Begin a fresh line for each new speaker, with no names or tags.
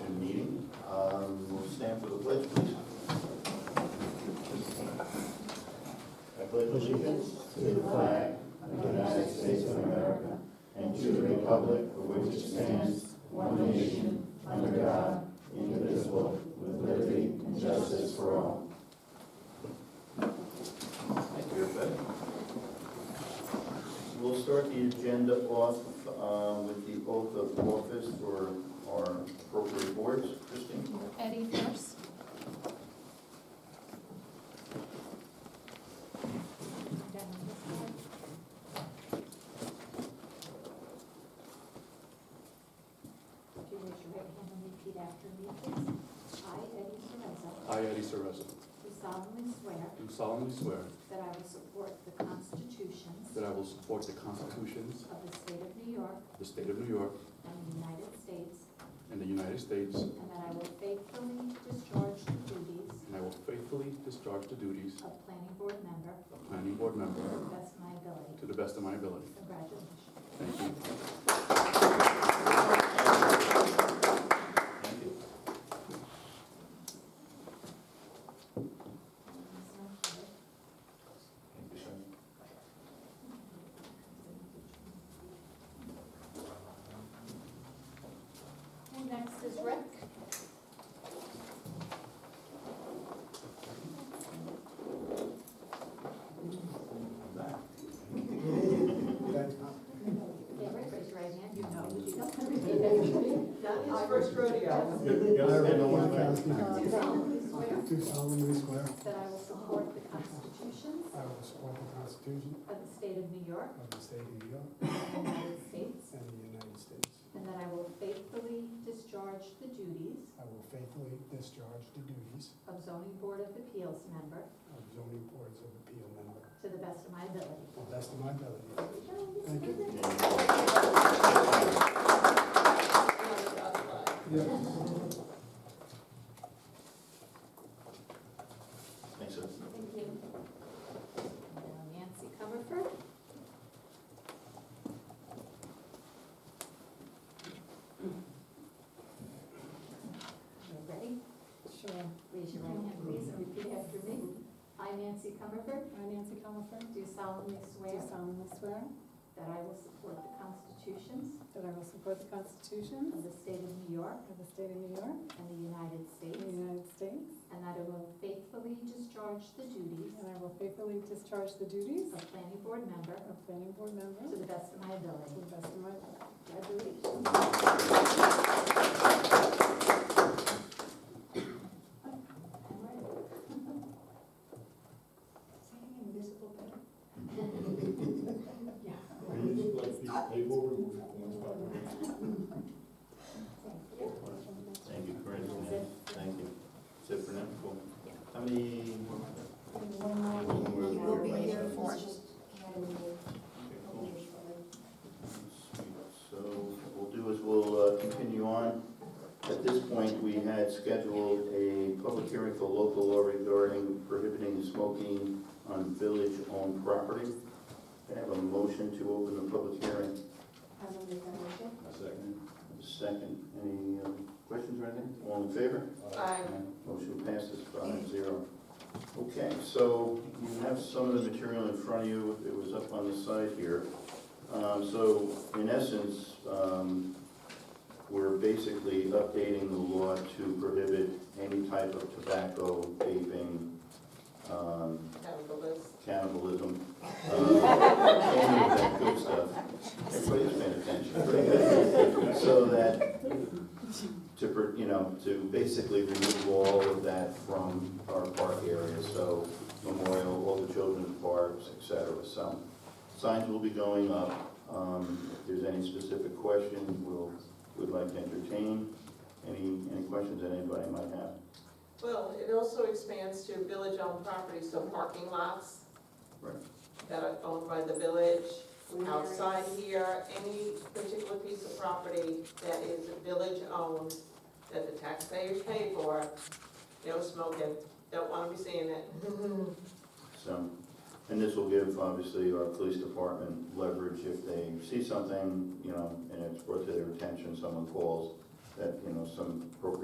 Um, Thank you, everybody. We'll start the agenda off uh, with the oath of office for our appropriate boards. Christine?
Eddie first.
Do you raise your right hand and repeat after me, please? I, Eddie Cerezo,
I, Eddie Cerezo,
do solemnly swear
do solemnly swear
that I will support the constitutions
that I will support the constitutions
of the state of New York
of the state of New York
and the United States,
and the United States, and
and that I will faithfully discharge the duties
I will faithfully discharge the duties
of planning board member
of planning board member
to the best of my ability.
to the best of my ability.
Congratulations.
Thank you.
Thank you. Thank you, Sean.
And next is Rick.
Okay, Rick, raise your right hand. You know that you don't have to repeat after me.
Not his first rodeo.
Do solemnly swear
Do solemnly swear
that I will support the constitutions
I will support the Constitution
of the state of New York
of the State of New York
and the United States,
and the United States.
And that I will faithfully discharge the duties
I will faithfully discharge the duties
of zoning board of appeals member
of zoning boards of appeal member
to the best of my ability.
to the best of my ability. Thank you.
Thanks, sir.
Thank you. Now Nancy Comerford. You ready? Sure. Raise your right hand, please, and repeat after me. I, Nancy Comerford,
I, Nancy Colifer,
do solemnly swear
do solemnly swear
that I will support the constitutions
that I will support the Constitution
of the state of New York
of the state of New York
and the United
and the
States,
United States,
and that I will faithfully discharge the duties
and I will faithfully discharge the duties
of planning board member
of planning board
to
member
the best of my
to
ability.
the best of my ability.
Congratulations. Yeah. Thank you.
Thank you, Corinne. Thank you. Is it for now? Cool. How many?
He will be here for
Okay,
just hand me
cool.
information for the
So what we'll do is we'll uh, continue on. At this point, we had scheduled a public hearing for local law regarding prohibiting smoking on village-owned property. Can I have a motion to open the public hearing?
I will make that motion.
second. Second. Any uh, questions or anything? All in favor?
Aye.
Motion passes five zero. Okay, so you have some of the material in front of you, it was up on the side here. Um, So in essence, um, we're basically updating the law to prohibit any type of tobacco, vaping, um,
Capitalists.
cannibalism, uh, any of that good stuff. Everybody's paying attention, pretty good. So that, to, pr- you know, to basically remove all of that from our park area, so Memorial, all the children's parks, et cetera, so. Signs will be going up, um, if there's any specific questions, we'll, we'd like to entertain. Any, any questions that anybody might have?
Well, it also expands to village-owned property, so parking lots
Right.
that are owned by the village,
Green
outside
areas.
here, any particular piece of property that is village-owned, that the taxpayers pay for, no smoking, don't wanna be seeing it.
So, and this will give, obviously, our police department leverage if they see something, you know, and it's brought to their attention, someone calls, that, you know, some appropriate